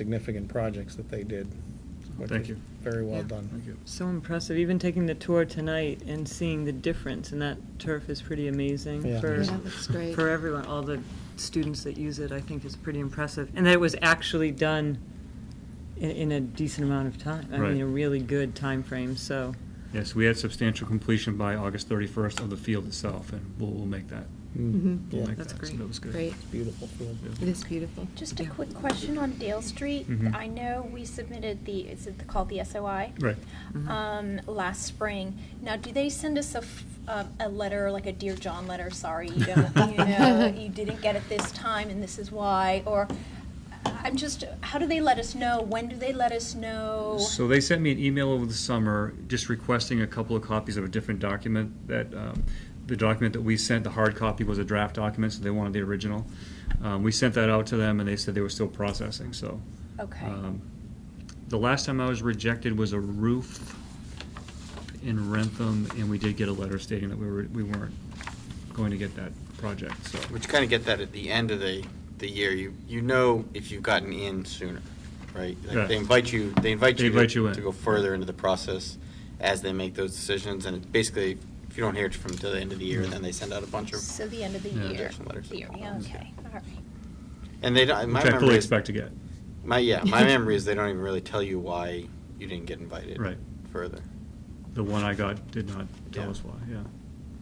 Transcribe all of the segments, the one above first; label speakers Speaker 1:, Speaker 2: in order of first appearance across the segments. Speaker 1: significant projects that they did. which
Speaker 2: Thank
Speaker 1: was
Speaker 2: you.
Speaker 1: Very well
Speaker 3: Yeah.
Speaker 1: done.
Speaker 2: Thank you.
Speaker 3: So impressive, even taking the tour tonight and seeing the difference in that turf is pretty amazing
Speaker 1: Yeah.
Speaker 3: for,
Speaker 1: Yeah,
Speaker 4: that's great.
Speaker 3: for everyone, all the students that use it, I think is pretty impressive. And that it was actually done in, in a decent amount of time, I
Speaker 2: Right.
Speaker 3: mean, a really good time frame. so.
Speaker 2: Yes, we had substantial completion by August 31st of the field itself, and we'll, we'll make that.
Speaker 4: Mhm.
Speaker 2: We'll
Speaker 1: Mm-hmm. Yeah,
Speaker 2: make
Speaker 3: That's
Speaker 2: that. So
Speaker 3: great.
Speaker 2: that was good.
Speaker 4: Great.
Speaker 1: Beautiful field.
Speaker 2: Yeah.
Speaker 4: It is beautiful.
Speaker 5: Just a
Speaker 3: Yeah.
Speaker 5: quick question on Dale Street.
Speaker 2: Mhm.
Speaker 5: I know we submitted the, is it called the SOI?
Speaker 2: Right.
Speaker 3: Mhm.
Speaker 5: Um, last spring. Now, do they send us a, f- a- a letter, like a Dear John letter, sorry, you don't, you know, you didn't get it this time and this is why? Or, I'm just, how do they let us know? When do they let us know?
Speaker 2: So they sent me an email over the summer, just requesting a couple of copies of a different document that, um, the document that we sent, the hard copy was a draft document, so they wanted the original. Um, We sent that out to them, and they said they were still processing, so.
Speaker 5: Okay.
Speaker 2: um, The last time I was rejected was a roof in Rentham, and we did get a letter stating that we were, we weren't going to get that project, so.
Speaker 6: But you kind of get that at the end of the, the year. You, you know if you've gotten in sooner, right?
Speaker 2: Yeah.
Speaker 6: Like they invite you, they invite
Speaker 2: They
Speaker 6: you
Speaker 2: invite you
Speaker 6: to
Speaker 2: in.
Speaker 6: to go further into the process as they make those decisions. And it's basically, if you don't hear it from till the end of the year,
Speaker 2: Yeah.
Speaker 6: then they send out a bunch of,
Speaker 5: So the end of the
Speaker 2: Yeah.
Speaker 5: year.
Speaker 6: Rejection letters.
Speaker 5: Year, yeah, okay, all right.
Speaker 6: and they don't, my
Speaker 2: Which I fully
Speaker 6: memory is.
Speaker 2: expect to get.
Speaker 6: My, yeah, my memory is they don't even really tell you why you didn't get invited.
Speaker 2: Right.
Speaker 6: Further.
Speaker 2: The one I got did not tell
Speaker 6: Yeah.
Speaker 2: us why, yeah.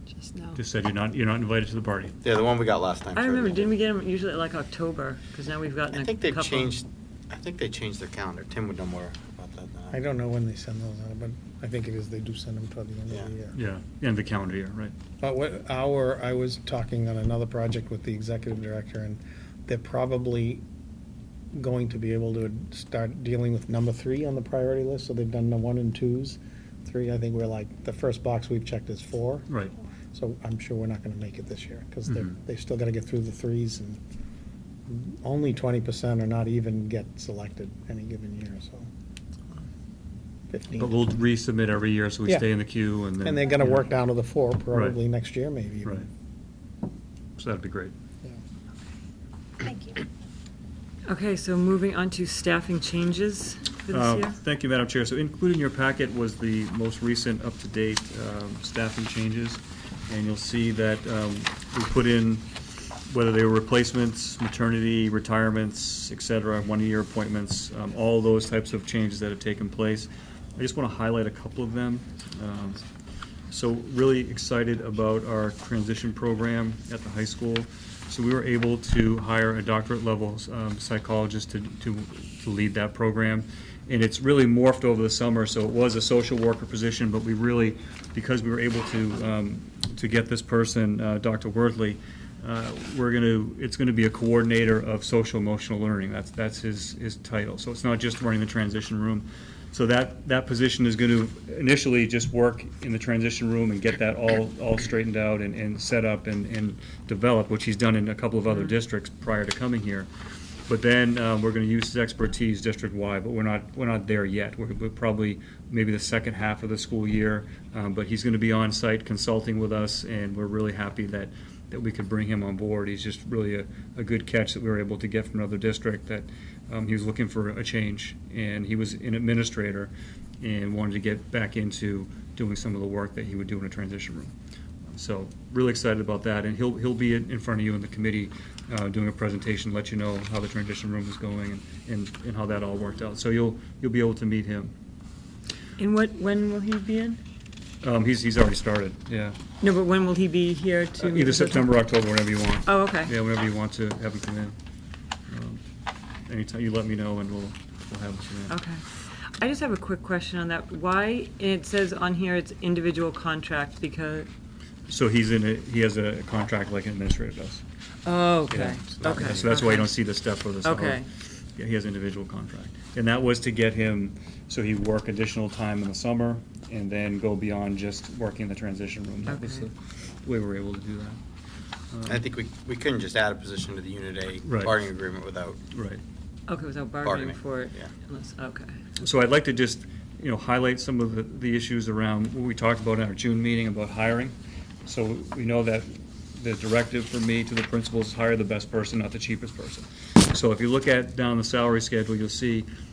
Speaker 4: Just now.
Speaker 2: Just said you're not, you're not invited to the party.
Speaker 6: Yeah, the one we got last time.
Speaker 3: I
Speaker 6: sure
Speaker 3: remember, didn't
Speaker 6: didn't.
Speaker 3: we get them usually like October, because now we've gotten a
Speaker 6: I
Speaker 3: couple.
Speaker 6: think they've changed, I think they changed their calendar. Tim would know more about that than I.
Speaker 1: I don't know when they send those out, but I think it is, they do send them toward the end
Speaker 6: Yeah.
Speaker 1: of the year.
Speaker 2: Yeah, end of the calendar year, right.
Speaker 1: But what hour, I was talking on another project with the executive director, and they're probably going to be able to start dealing with number three on the priority list, so they've done the one and twos. Three, I think we're like, the first box we've checked is four.
Speaker 2: Right.
Speaker 1: So I'm sure we're not gonna make it this year, because they're,
Speaker 2: Mhm.
Speaker 1: they've still gotta get through the threes, and only twenty percent or not even get selected any given year, so. Fifteen.
Speaker 2: But we'll resubmit every year, so we
Speaker 1: Yeah.
Speaker 2: stay in the queue and then.
Speaker 1: And they're gonna work down to the four probably
Speaker 2: Right.
Speaker 1: next year, maybe. even.
Speaker 2: Right. So that'd be great.
Speaker 1: Yeah.
Speaker 5: Thank you.
Speaker 3: Okay, so moving on to staffing changes for this
Speaker 2: Uh,
Speaker 3: year.
Speaker 2: Thank you, Madam Chair. So included in your packet was the most recent up-to-date um, staffing changes. And you'll see that um, we put in whether they were replacements, maternity, retirements, et cetera, one-year appointments, um, all those types of changes that have taken place. I just want to highlight a couple of them. Um, So really excited about our transition program at the high school. So we were able to hire a doctorate level um, psychologist to, to, to lead that program. And it's really morphed over the summer, so it was a social worker position, but we really, because we were able to, um, to get this person, uh, Dr. Worthley, uh, we're going to, it's going to be a coordinator of social emotional learning. That's, that's his, his title. So it's not just running the transition room. So that, that position is going to initially just work in the transition room and get that all, all straightened out and, and set up and, and developed, which he's done in a couple of other districts prior to coming here. But then uh, we're going to use his expertise district-wide, but we're not, we're not there yet. We're we're probably, maybe the second half of the school year, um, but he's going to be on-site consulting with us, and we're really happy that, that we could bring him on board. He's just really a, a good catch that we were able to get from another district, that um, he was looking for a change, and he was an administrator and wanted to get back into doing some of the work that he would do in a transition room. So really excited about that, and he'll, he'll be in in front of you in the committee uh, doing a presentation, let you know how the transition room is going and- and, and how that all worked out. So you'll, you'll be able to meet him.
Speaker 3: And what, when will he be in?
Speaker 2: Um, He's, he's already started, yeah.
Speaker 3: No, but when will he be here to?
Speaker 2: uh, Either September, or October, whenever you want.
Speaker 3: Oh, okay.
Speaker 2: Yeah, whenever you want to have him come in. Um, Anytime, you let me know and we'll, we'll have him come in.
Speaker 3: Okay. I just have a quick question on that. Why, it says on here it's individual contract because,
Speaker 2: So he's in, a he has a contract like an administrator does.
Speaker 3: oh,
Speaker 2: Yeah,
Speaker 3: okay,
Speaker 2: so that-
Speaker 3: okay.
Speaker 2: So that's why you
Speaker 3: okay.
Speaker 2: don't see the step or the salary.
Speaker 3: Okay.
Speaker 2: Yeah, he has individual contract. And that was to get him, so he'd work additional time in the summer and then go beyond just working the transition room. That was the
Speaker 3: Okay.
Speaker 2: way we were able to do that. Um,
Speaker 6: I think we, we couldn't just add a position to the Unit
Speaker 2: Right.
Speaker 6: A bargaining agreement without
Speaker 2: Right.
Speaker 3: Okay, without bargaining
Speaker 6: Bargaining,
Speaker 3: for it,
Speaker 6: yeah.
Speaker 3: unless, okay.
Speaker 2: So I'd like to just, you know, highlight some of the, the issues around what we talked about in our June meeting about hiring. So we know that the directive for me to the principals is hire the best person, not the cheapest person. So if you look at down the salary schedule, you'll see